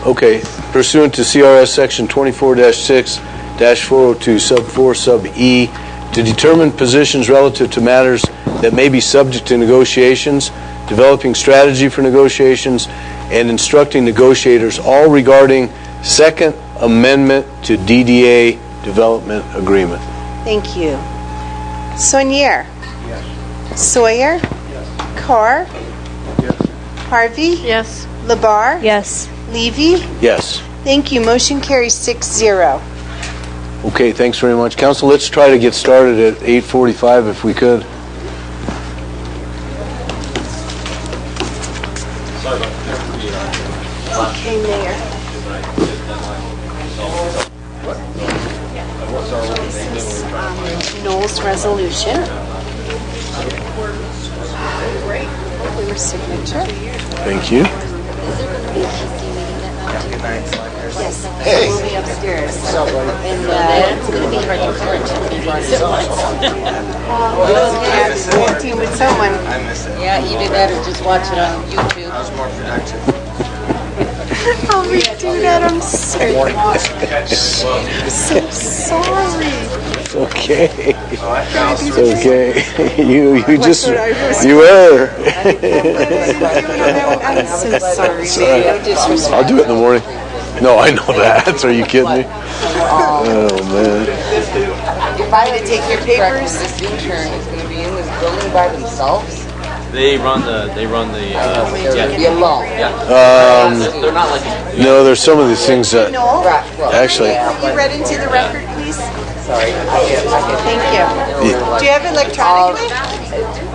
Okay, pursuant to CRS Section 24-6-402, Sub 4, Sub E, to determine positions relative to matters that may be subject to negotiations, developing strategy for negotiations, and instructing negotiators, all regarding Second Amendment to DDA Development Agreement. Thank you. Sonier? Sawyer? Carr? Harvey? Yes. Labar? Yes. Levy? Yes. Thank you. Motion carries six zero. Okay, thanks very much. Council, let's try to get started at 8:45 if we could. Okay, Mayor. Um, This is um, Noel's resolution. For your signature. Thank you. Yes. Hey. We'll be upstairs. And uh, it's going to be hard to cover two meetings at once. Um, Team with someone. Yeah, you do better just watch it on YouTube. I'll redo that, I'm sorry. I'm so sorry. Okay. Okay, you, you just, what I was- you err. I'm so sorry, man. No disrespect. I'll do it in the morning. No, I know that. Are you kidding me? Oh, man. You're probably to take your papers. This intern is going to be in this building by themselves. They run the. They run the. Uh, They're going to be alone. they're not like. a- No, there's some of these things that, Noel, Right. Well, actually, will you read into the record, please? sorry. I get. I get. Thank you. Do you have it electronically?